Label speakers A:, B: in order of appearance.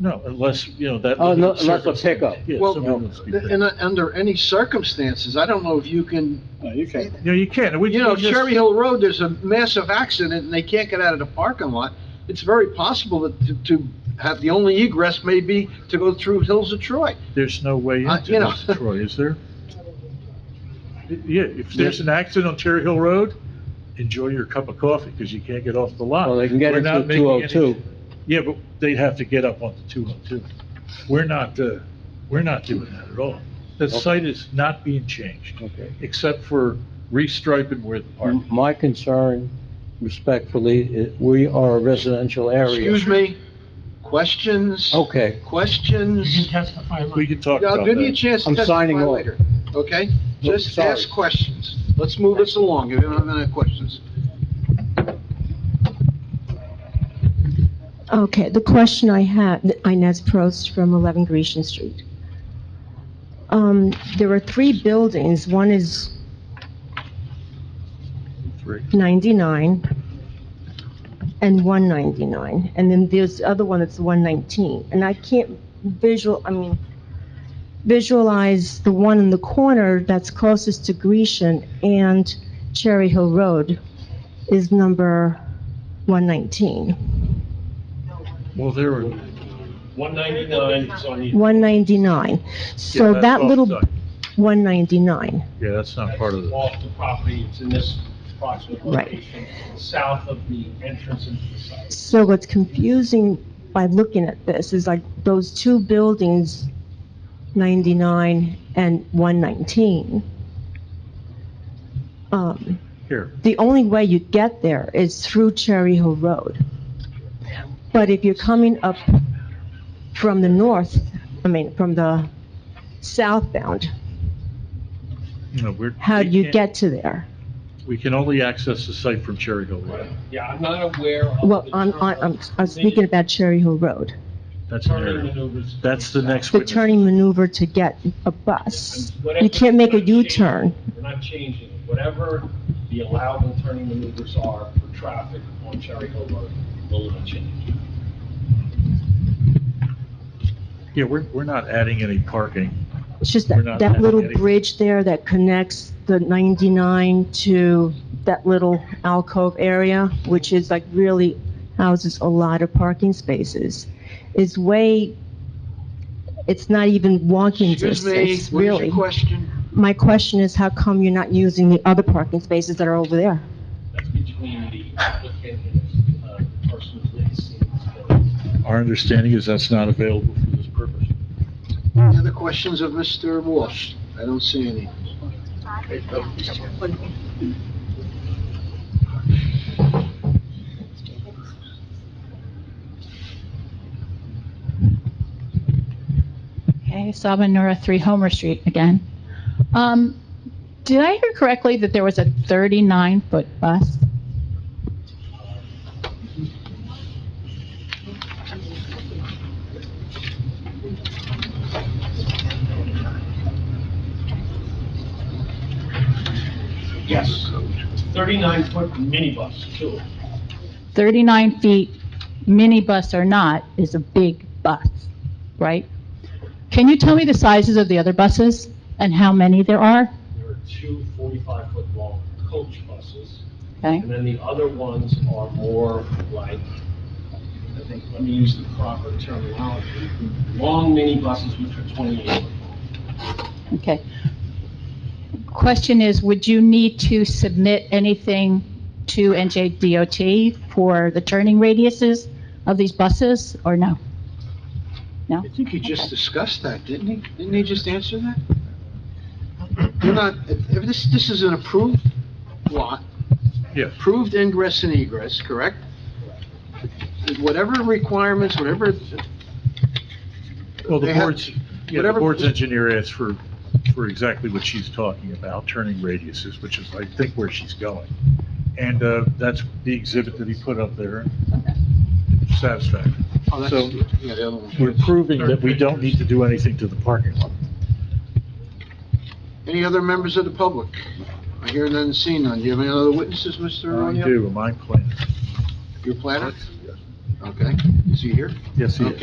A: No, unless, you know, that.
B: Oh, no, unless a pickup.
A: Yeah,
C: Well,
A: something that's be picked.
C: In, a- under any circumstances, I don't know if you can,
D: No, you can't.
A: You know, you can't. We-
C: you know,
A: we just-
C: Cherry Hill Road, there's a massive accident and they can't get out of the parking lot. It's very possible that to, to have, the only egress may be to go through Hills of Troy.
A: There's no way
C: Uh, you
A: into
C: know.
A: this, Troy, is there? Yeah, if there's an accident on Cherry Hill Road, enjoy your cup of coffee, because you can't get off the lot.
B: Well, they can get
A: We're
B: into
A: not making any-
B: 202.
A: Yeah, but they'd have to get up onto 202. We're not, uh, we're not doing that at all. The
B: Okay.
A: site is not being changed,
B: Okay.
A: except for restriping where the park.
B: My concern, respectfully, i- we are a residential area.
C: Excuse me? Questions?
B: Okay,
C: Questions?
A: We can talk
C: I'll
A: about
C: give you a
A: that.
C: chance to
B: I'm
C: testify
B: signing off.
C: later, okay?
B: No,
C: Just
B: sorry.
C: ask questions. Let's move this along, if you don't have any questions.
E: Okay, the question I had, Inez Prost from 11 Grecian Street. Um, There are three buildings. One is
A: Three.
E: 99 and 199, and then there's the other one that's 119. And I can't visual, I mean, visualize the one in the corner that's closest to Grecian and Cherry Hill Road is number 119.
A: Well, there were.
F: 199 is on the,
E: 199. So
A: yeah,
E: that
A: that's
E: little
A: offside.
E: 199,
A: Yeah, that's not part of the.
F: off the property, it's in this approximate
E: Right.
F: location, south of the entrance into the site.
E: so what's confusing by looking at this is like those two buildings, 99 and 119. Um,
A: Here.
E: The only way you get there is through Cherry Hill Road. But if you're coming up from the north, I mean, from the southbound,
A: No, we're.
E: how do
A: we
E: you
A: can't-
E: get to there?
A: We can only access the site from Cherry Hill Road.
F: Yeah, I'm not aware of.
E: Well,
F: the
E: I'm,
F: turn-
E: I'm, I'm speaking about Cherry Hill Road,
A: That's an
F: Turning
A: area.
F: maneuvers.
A: That's the next
E: the
A: witness.
E: turning maneuver to get a bus. You can't make a U-turn.
F: We're not changing, it. whatever the allowable turning maneuvers are for traffic on Cherry Hill Road, will not change.
A: Yeah, we're, we're not adding any parking.
E: It's just
A: We're
E: that,
A: not
E: that little
A: adding any-
E: bridge there that connects the 99 to that little alcove area, which is like really houses a lot of parking spaces, is way, it's not even walking
C: Excuse me,
E: distance,
C: what is your
E: really.
C: question?
E: My question is, how come you're not using the other parking spaces that are over there?
F: That's between the applicant and uh, the person who's leasing this building.
A: Our understanding is that's not available for this purpose.
C: Any other questions of Mr. Walsh? I don't see any. Okay, so-
G: Okay, Saba Nura, 3 Homer Street again. Um, Did I hear correctly that there was a 39-foot bus?
F: Yes, 39-foot minibus, too.
G: 39 feet, minibus or not, is a big bus, right? Can you tell me the sizes of the other buses and how many there are?
F: There are two 45-foot long coach buses,
G: Okay,
F: and then the other ones are more like, I think, let me use the proper terminology, long minibuses, which are 28 foot long.
G: okay. Question is, would you need to submit anything to NJDOT for the turning radiuses of these buses, or no?
C: I think he just discussed that, didn't he? Didn't he just answer that? You're not, if if this, this is an approved lot.
A: Yeah.
C: Approved ingress and egress, correct? Whatever requirements, whatever,
A: Well, the
C: They have-
A: board's, yeah, the
C: whatever-
A: board's engineer asked for, for exactly what she's talking about, turning radiuses, which is, I think, where she's going. And uh, that's the exhibit that he put up there. Satisfactory.
C: oh, that's,
A: So-
C: yeah, the other one.
A: We're proving that we don't need to do anything to the parking lot.
C: Any other members of the public? I hear none, see none. Do you have any other witnesses, Mr.
A: I
C: O'Neill?
A: do, am I planning?
C: Your planner? Okay, is he here?
A: Yes, he is.
C: Okay.